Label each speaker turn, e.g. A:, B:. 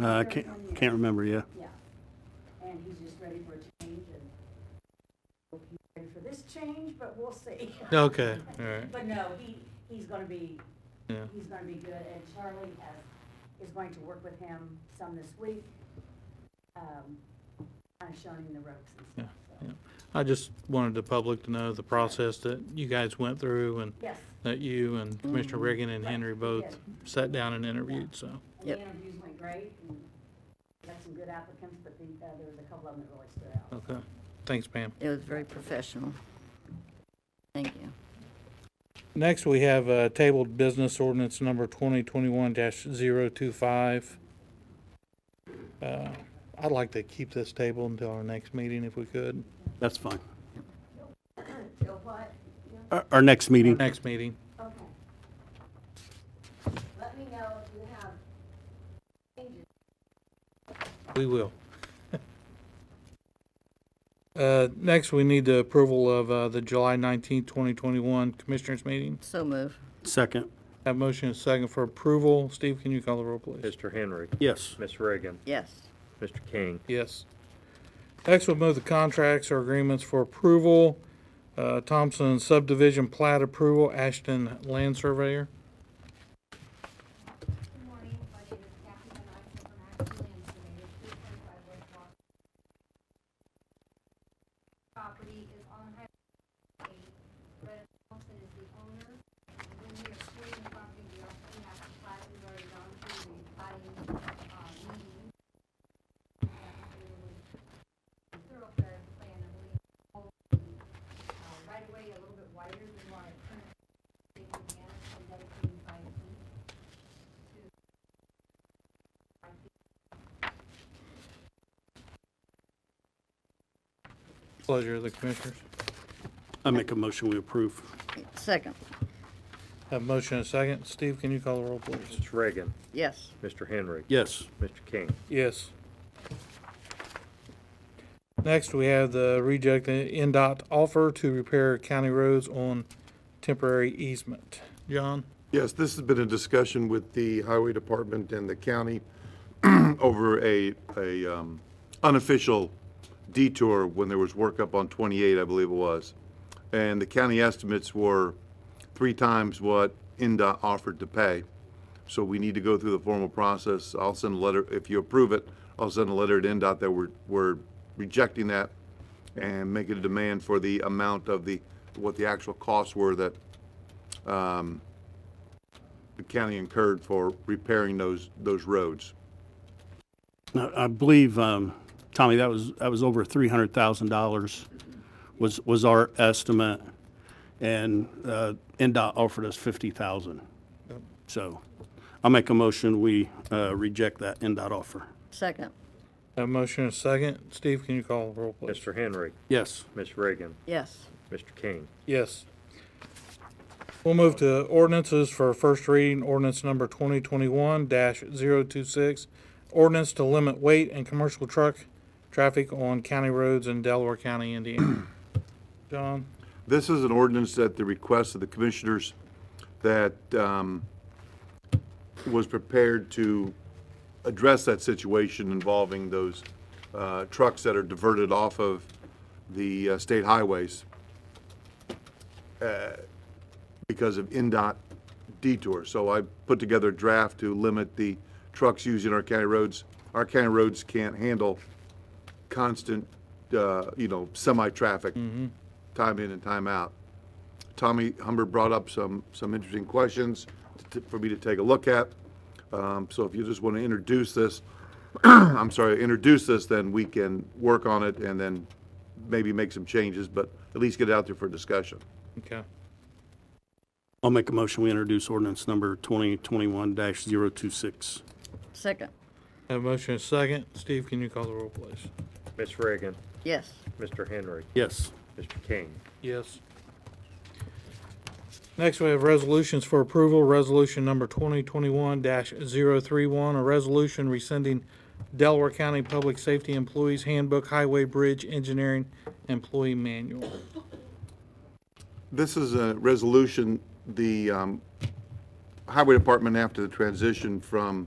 A: Uh, I can't, can't remember, yeah.
B: Yeah. And he's just ready for a change and hope he's ready for this change, but we'll see.
C: Okay, all right.
B: But no, he, he's gonna be,
C: Yeah.
B: he's gonna be good, and Charlie has, is going to work with him some this week. Um, kinda showing him the ropes and stuff, so,
C: I just wanted the public to know the process that you guys went through and
B: yes.
C: that you and Commissioner Reagan and Henry both sat down and interviewed, so.
B: And the interviews went great, and got some good applicants, but the, uh, there was a couple of them that really stood out.
C: Okay, thanks Pam.
D: It was very professional. Thank you.
C: Next, we have uh, tabled business ordinance number 2021-025. Uh, I'd like to keep this table until our next meeting if we could.
A: That's fine.
B: So what,
A: Our, our next meeting,
C: Next meeting.
B: okay. Let me know if you have changes.
C: We will. Uh, Next, we need the approval of uh, the July 19, 2021 Commissioners Meeting.
D: So move.
A: second.
C: Have motion and second for approval. Steve, can you call the roll, please?
E: Mr. Henry.
A: Yes,
E: Miss Reagan.
D: Yes.
E: Mr. King.
C: Yes. Next, we'll move the contracts or agreements for approval. Uh, Thompson subdivision plat approval, Ashton Land Surveyor.
F: Good morning, my name is Kathy and I'm from Acton Land Surveyors, 325 West Walk. Property is on Highway 8. Brett Thompson is the owner. And When we are screening the property, we also have the plat we've already gone through the plating uh, meeting. We have to do a Thoroughfare plan, I believe, all the uh, right away a little bit wider than what it currently is, and dedicating five feet.
C: Pleasure of the Commissioners.
A: I make a motion, we approve.
D: Second.
C: Have motion and second. Steve, can you call the roll, please?
E: Miss Reagan.
D: Yes.
E: Mr. Henry.
A: Yes,
E: Mr. King.
C: Yes. Next, we have the reject the NDOT offer to repair county roads on temporary easement. John?
G: Yes, this has been a discussion with the highway department and the county over a, a um, unofficial detour when there was work up on 28, I believe it was. And the county estimates were three times what NDOT offered to pay. So we need to go through the formal process. I'll send a letter, if you approve it, I'll send a letter to NDOT that we're, we're rejecting that and making a demand for the amount of the, what the actual costs were that the county incurred for repairing those, those roads.
A: I, I believe, um, Tommy, that was, that was over three hundred thousand dollars was, was our estimate. And, uh, NDOT offered us fifty thousand. So I make a motion, we, uh, reject that NDOT offer.
D: Second.
C: Have motion and second. Steve, can you call the roll, please?
E: Mr. Henry.
A: Yes,
E: Miss Reagan.
D: Yes.
E: Mr. King.
C: Yes. We'll move to ordinances for first reading, ordinance number 2021-026, ordinance to limit weight and commercial truck traffic on county roads in Delaware County, Indiana. John?
G: This is an ordinance at the request of the commissioners that um, was prepared to address that situation involving those uh, trucks that are diverted off of the uh, state highways uh, because of NDOT detours. So I put together a draft to limit the trucks using our county roads. Our county roads can't handle constant, uh, you know, semi-traffic, time in and time out. Tommy Humber brought up some, some interesting questions to- for me to take a look at. Um, So if you just want to introduce this, I'm sorry, introduce this, then we can work on it and then maybe make some changes, but at least get it out there for discussion.
C: Okay.
A: I'll make a motion, we introduce ordinance number twenty twenty-one dash zero two six.
D: Second.
C: Have motion and second. Steve, can you call the roll, please?
E: Miss Reagan.
D: Yes.
E: Mr. Henry.
A: Yes,
E: Mr. King.
C: Yes. Next, we have resolutions for approval. Resolution number 2021-031, a resolution rescinding Delaware County Public Safety Employees Handbook Highway Bridge Engineering Employee Manual.
G: This is a resolution, the um, Highway Department, after the transition from